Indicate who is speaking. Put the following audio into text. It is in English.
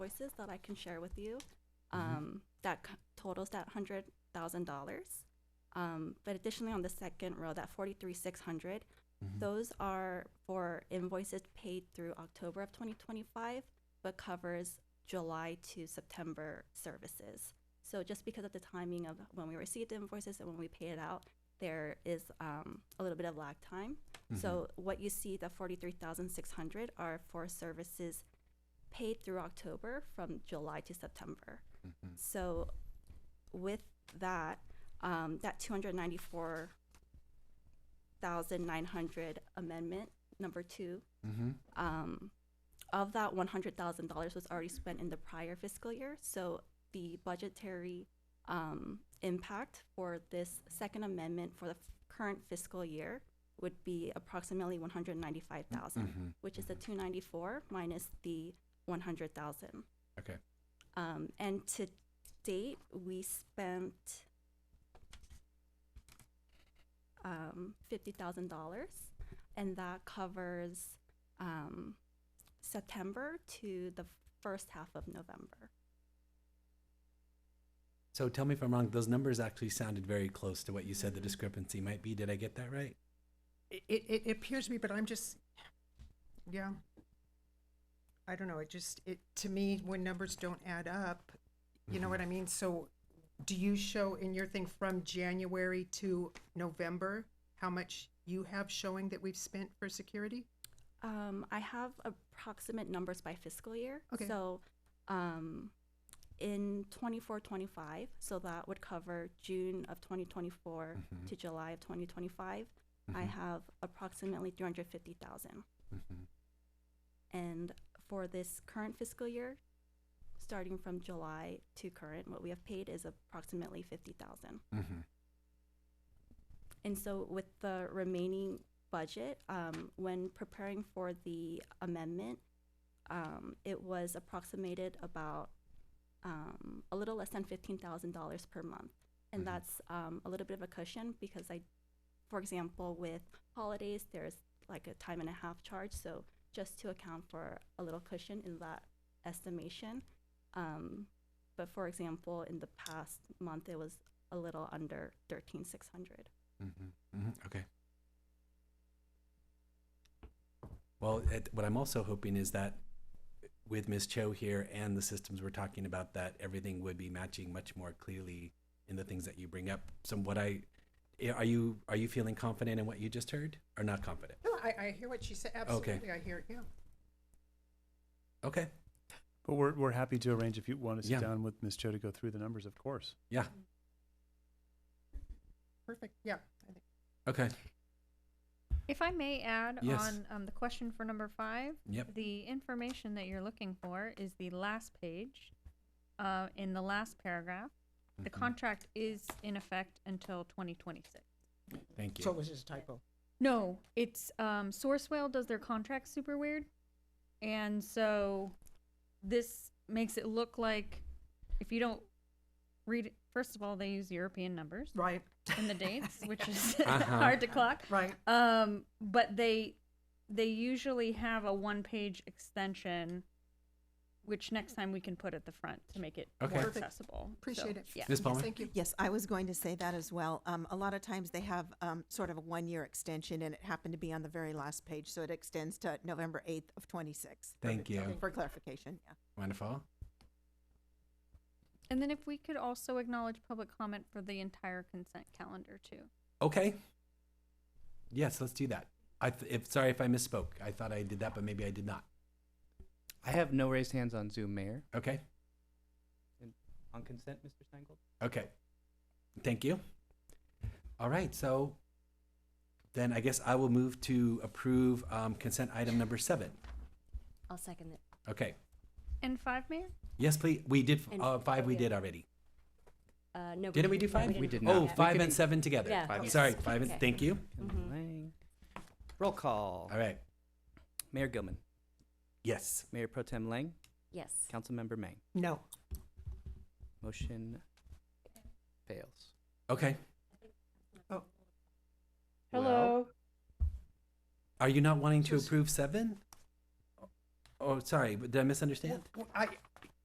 Speaker 1: choices that I can share with you. Um, that c- totals that hundred thousand dollars. Um, but additionally, on the second row, that forty-three six hundred, those are for invoices paid through October of twenty twenty-five, but covers July to September services. So just because of the timing of when we received the invoices and when we pay it out, there is um, a little bit of lag time. So what you see, the forty-three thousand six hundred are for services paid through October from July to September. So with that, um, that two hundred ninety-four thousand nine hundred amendment number two, um, of that one hundred thousand dollars was already spent in the prior fiscal year. So the budgetary um, impact for this second amendment for the f- current fiscal year would be approximately one hundred ninety-five thousand, which is the two ninety-four minus the one hundred thousand.
Speaker 2: Okay.
Speaker 1: Um, and to date, we spent um, fifty thousand dollars, and that covers um, September to the first half of November.
Speaker 2: So tell me if I'm wrong. Those numbers actually sounded very close to what you said the discrepancy might be. Did I get that right?
Speaker 3: It, it, it appears to me, but I'm just, yeah. I don't know, it just, it, to me, when numbers don't add up, you know what I mean? So do you show in your thing from January to November, how much you have showing that we've spent for security?
Speaker 1: Um, I have approximate numbers by fiscal year.
Speaker 3: Okay.
Speaker 1: So, um, in 24 25, so that would cover June of 2024 to July of 2025, I have approximately 350,000. And for this current fiscal year, starting from July to current, what we have paid is approximately 50,000. And so with the remaining budget, um, when preparing for the amendment, um, it was approximated about um, a little less than fifteen thousand dollars per month, and that's um, a little bit of a cushion because I, for example, with holidays, there's like a time and a half charge, so just to account for a little cushion in that estimation. Um, but for example, in the past month, it was a little under thirteen six hundred.
Speaker 2: Okay. Well, it, what I'm also hoping is that with Ms. Cho here and the systems we're talking about, that everything would be matching much more clearly in the things that you bring up. Some what I eh, are you are you feeling confident in what you just heard or not confident?
Speaker 3: No, I, I hear what she said, absolutely, I hear, yeah.
Speaker 2: Okay.
Speaker 4: But we're, we're happy to arrange if you want to
Speaker 2: Yeah.
Speaker 4: sit down with Ms. Cho to go through the numbers, of course.
Speaker 2: Yeah.
Speaker 3: Perfect, yeah. I think-
Speaker 2: Okay.
Speaker 5: If I may add
Speaker 2: Yes.
Speaker 5: on um, the question for number five,
Speaker 2: Yep.
Speaker 5: the information that you're looking for is the last page uh, in the last paragraph. The
Speaker 2: Mhm.
Speaker 5: contract is in effect until 2026.
Speaker 2: Thank you.
Speaker 3: So it was just a typo.
Speaker 5: No, it's um, Sourcewell does their contract super weird. And so this makes it look like if you don't read it, first of all, they use European numbers
Speaker 3: Right,
Speaker 5: in the dates, which is
Speaker 2: Uh-huh.
Speaker 5: hard to clock.
Speaker 3: right,
Speaker 5: Um, but they they usually have a one page extension, which next time we can put at the front to make it
Speaker 2: Okay.
Speaker 5: more
Speaker 3: Perfect.
Speaker 5: accessible. So,
Speaker 3: appreciate it.
Speaker 5: Yeah.
Speaker 2: Ms. Palmer?
Speaker 3: Thank you.
Speaker 6: Yes, I was going to say that as well. Um, a lot of times they have um, sort of a one-year extension, and it happened to be on the very last page, so it extends to November eighth of twenty-six.
Speaker 2: Thank you.
Speaker 6: For clarification, yeah.
Speaker 2: Wonderful.
Speaker 5: And then if we could also acknowledge public comment for the entire consent calendar too.
Speaker 2: Okay. Yes, let's do that. I th- if, sorry if I misspoke. I thought I did that, but maybe I did not.
Speaker 7: I have no raised hands on Zoom, Mayor.
Speaker 2: Okay.
Speaker 7: On consent, Mr. Steingold?
Speaker 2: Okay. Thank you. All right. So then I guess I will move to approve um, consent item number seven.
Speaker 8: I'll second it.
Speaker 2: Okay.
Speaker 5: And five, Mayor?
Speaker 2: Yes, please. We did f-
Speaker 8: And-
Speaker 2: uh, five. We
Speaker 8: yeah.
Speaker 2: did already.
Speaker 8: Uh, no.
Speaker 2: Didn't we do five?
Speaker 7: We did
Speaker 2: Oh,
Speaker 7: not.
Speaker 2: five
Speaker 7: We
Speaker 2: and
Speaker 7: could-
Speaker 2: seven together.
Speaker 8: Yeah.
Speaker 7: Five
Speaker 2: I'm
Speaker 7: yes.
Speaker 2: sorry. Five and
Speaker 8: Okay.
Speaker 2: thank you.
Speaker 8: Mhm.
Speaker 7: Lang. Roll call.
Speaker 2: All right.
Speaker 7: Mayor Gilman,
Speaker 2: Yes.
Speaker 7: Mayor Pro Tem Lang,
Speaker 8: Yes.
Speaker 7: Councilmember Mang.
Speaker 3: No,
Speaker 7: Motion fails.
Speaker 2: Okay.
Speaker 7: Hello.
Speaker 2: Are you not wanting to
Speaker 3: Just-
Speaker 2: approve seven? Oh, sorry. Did I misunderstand?
Speaker 3: Well, I,